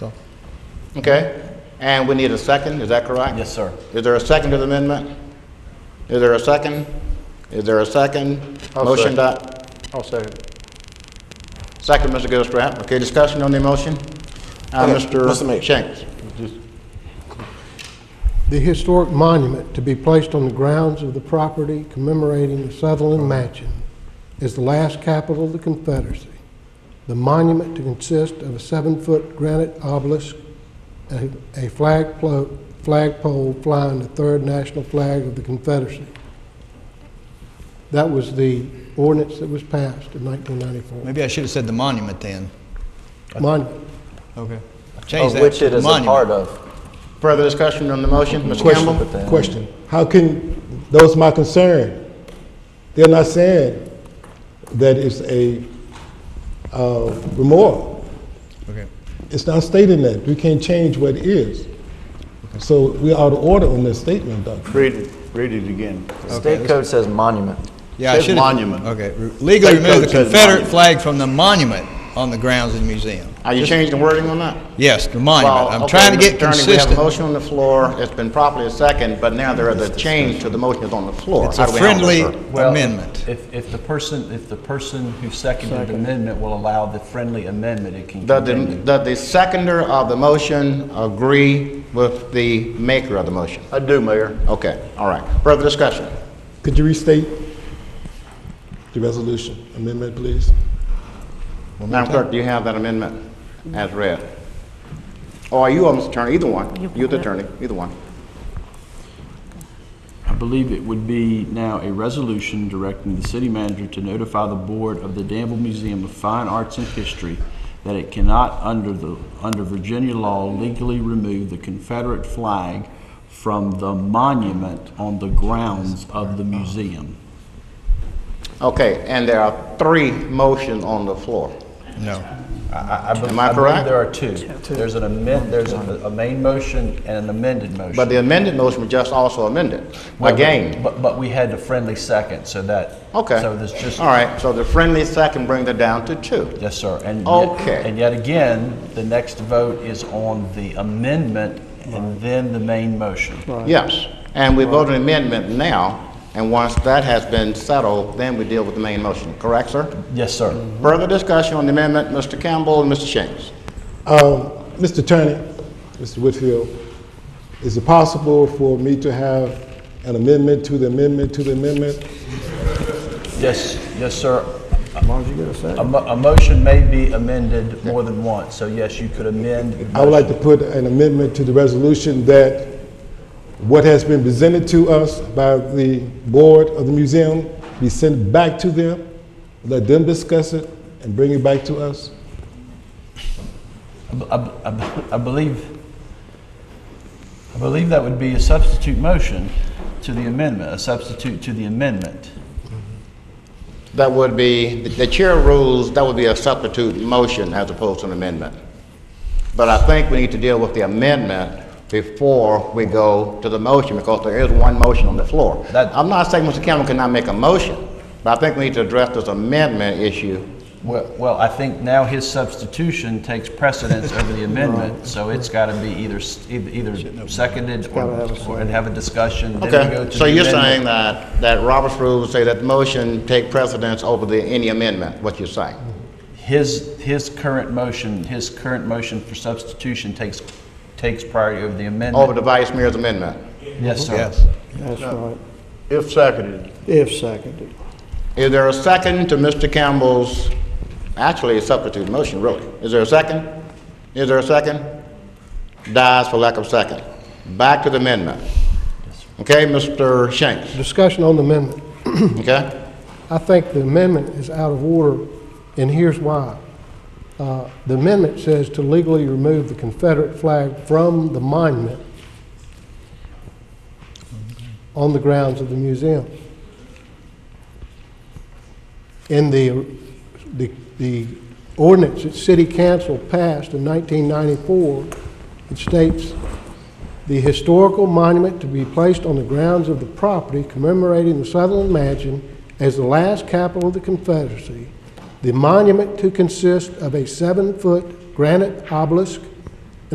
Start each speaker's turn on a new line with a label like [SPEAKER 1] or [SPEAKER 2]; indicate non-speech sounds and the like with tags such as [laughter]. [SPEAKER 1] So, Okay, and we need a second, is that correct?
[SPEAKER 2] Yes, sir.
[SPEAKER 1] Is there a second to the amendment? Is there a second? Is there a 2nd
[SPEAKER 3] I'll
[SPEAKER 4] Oh,
[SPEAKER 1] Motion
[SPEAKER 3] second.
[SPEAKER 1] dot,
[SPEAKER 3] I'll second.
[SPEAKER 1] second, Mr. Gilstrap. Okay, discussion on the motion? Uh,
[SPEAKER 2] Okay, Mr.
[SPEAKER 1] Mr.
[SPEAKER 2] Mayor.
[SPEAKER 1] Shanks?
[SPEAKER 5] The historic monument to be placed on the grounds of the property commemorating the Sutherland Mansion is the last capital of the Confederacy. The monument to consist of a seven-foot granite obelisk, a a flag plo- flagpole flying the third national flag of the Confederacy. That was the ordinance that was passed in 1994.
[SPEAKER 4] Maybe I should have said the monument then.
[SPEAKER 5] Monument.
[SPEAKER 4] Okay.
[SPEAKER 2] Of
[SPEAKER 4] Change that
[SPEAKER 2] which
[SPEAKER 4] to
[SPEAKER 2] it
[SPEAKER 4] the
[SPEAKER 2] is a part
[SPEAKER 4] monument.
[SPEAKER 2] of.
[SPEAKER 1] Further discussion on the motion, Ms. Campbell?
[SPEAKER 2] But then-
[SPEAKER 6] Question, how can, that was my concern. They're not saying that it's a uh, remora.
[SPEAKER 4] Okay.
[SPEAKER 6] It's not stating that. We can't change what it is. So we out of order on this statement, Doctor.
[SPEAKER 3] Read it, read it again.
[SPEAKER 2] State code says monument.
[SPEAKER 4] Yeah, I
[SPEAKER 3] Says
[SPEAKER 4] should have-
[SPEAKER 3] monument.
[SPEAKER 4] Okay. Re- Legally
[SPEAKER 3] State
[SPEAKER 4] remove
[SPEAKER 3] code
[SPEAKER 4] the
[SPEAKER 3] says
[SPEAKER 4] Confederate
[SPEAKER 3] monument.
[SPEAKER 4] flag from the monument on the grounds of the museum.
[SPEAKER 1] Are you changing the wording on that?
[SPEAKER 4] Yes, the
[SPEAKER 1] Well,
[SPEAKER 4] monument. I'm
[SPEAKER 1] okay,
[SPEAKER 4] trying to
[SPEAKER 1] Mr.
[SPEAKER 4] get
[SPEAKER 1] Attorney, We have a
[SPEAKER 4] consistent.
[SPEAKER 1] motion on the floor, it's been properly seconded, but now there is a change to the motion that's on the floor.
[SPEAKER 4] It's
[SPEAKER 1] How
[SPEAKER 4] a
[SPEAKER 1] do we handle this,
[SPEAKER 4] friendly
[SPEAKER 1] sir?
[SPEAKER 7] Well,
[SPEAKER 4] amendment.
[SPEAKER 7] If, if the person, if the person who seconded the amendment will allow the friendly amendment, it can
[SPEAKER 1] Does the-
[SPEAKER 7] continue.
[SPEAKER 1] does the seconder of the motion agree with the maker of the motion?
[SPEAKER 3] I do, Mayor.
[SPEAKER 1] Okay, all right. Further discussion?
[SPEAKER 6] Could you restate the resolution amendment, please?
[SPEAKER 1] Madam Clerk, do you have that amendment as read? Or you, or Mr. Attorney, either one. You, the attorney, either one.
[SPEAKER 8] I believe it would be now a resolution directing the city manager to notify the board of the Danville Museum of Fine Arts and History that it cannot, under the, under Virginia law, legally remove the Confederate flag from the monument on the grounds of the museum.
[SPEAKER 1] Okay, and there are three motions on the floor.
[SPEAKER 4] No.
[SPEAKER 7] I- I be-
[SPEAKER 1] Am I
[SPEAKER 7] believe
[SPEAKER 1] correct?
[SPEAKER 7] there are two. There's an amend, there's a a main motion and an amended motion.
[SPEAKER 1] But the amended motion was just also amended,
[SPEAKER 7] Well,
[SPEAKER 1] again.
[SPEAKER 7] But, but we had the friendly second, so that.
[SPEAKER 1] Okay.
[SPEAKER 7] So there's just.
[SPEAKER 1] All right, so the friendly second brings it down to two.
[SPEAKER 7] Yes, sir. And yet-
[SPEAKER 1] Okay.
[SPEAKER 7] And yet again, the next vote is on the amendment and then the main motion.
[SPEAKER 1] Yes, and we vote an amendment now, and once that has been settled, then we deal with the main motion, correct, sir?
[SPEAKER 7] Yes, sir.
[SPEAKER 1] Further discussion on the amendment, Mr. Campbell and Mr. Shanks.
[SPEAKER 6] Um, Mr. Attorney, Mr. Whitfield, is it possible for me to have an amendment to the amendment to the amendment?
[SPEAKER 7] Yes, yes, sir. A mo- a motion may be amended more than once, so yes, you could amend. the
[SPEAKER 6] I would like
[SPEAKER 7] motion.
[SPEAKER 6] to put an amendment to the resolution that what has been presented to us by the board of the museum be sent back to them, let them discuss it, and bring it back to us.
[SPEAKER 7] I b- I b- I believe, I believe that would be a substitute motion to the amendment, a substitute to the amendment.
[SPEAKER 1] That would be, the chair rules, that would be a substitute motion as opposed to an amendment. But I think we need to deal with the amendment before we go to the motion, because there is one motion on the floor.
[SPEAKER 7] That-
[SPEAKER 1] I'm not saying Mr. Campbell cannot make a motion, but I think we need to address this amendment issue.
[SPEAKER 7] Well, well, I think now his substitution takes precedence over
[SPEAKER 4] [laughs]
[SPEAKER 7] the amendment, so it's got to be either, s- eith- either seconded or, or- and have a discussion, then we go
[SPEAKER 1] Okay,
[SPEAKER 7] to
[SPEAKER 1] so
[SPEAKER 7] the
[SPEAKER 1] you're saying
[SPEAKER 7] amendment.
[SPEAKER 1] that, that Robert's rules say that the motion take precedence over the, any amendment, what you're saying?
[SPEAKER 7] His, his current motion, his current motion for substitution takes, takes priority over the
[SPEAKER 1] Over
[SPEAKER 7] amendment.
[SPEAKER 1] the vice mayor's amendment?
[SPEAKER 7] Yes, sir.
[SPEAKER 4] Yes.
[SPEAKER 3] That's right. If seconded.
[SPEAKER 9] If seconded.
[SPEAKER 1] Is there a second to Mr. Campbell's, actually a substitute motion, really? Is there a second? Is there a second? Dies for lack of second. Back to the amendment. Okay, Mr. Shanks,
[SPEAKER 5] Discussion on the amendment.
[SPEAKER 1] okay?
[SPEAKER 5] I think the amendment is out of order, and here's why. Uh, The amendment says to legally remove the Confederate flag from the monument on the grounds of the museum. In the, the- the ordinance that city council passed in 1994, it states the historical monument to be placed on the grounds of the property commemorating the Sutherland Mansion as the last capital of the Confederacy. The monument to consist of a seven-foot granite obelisk,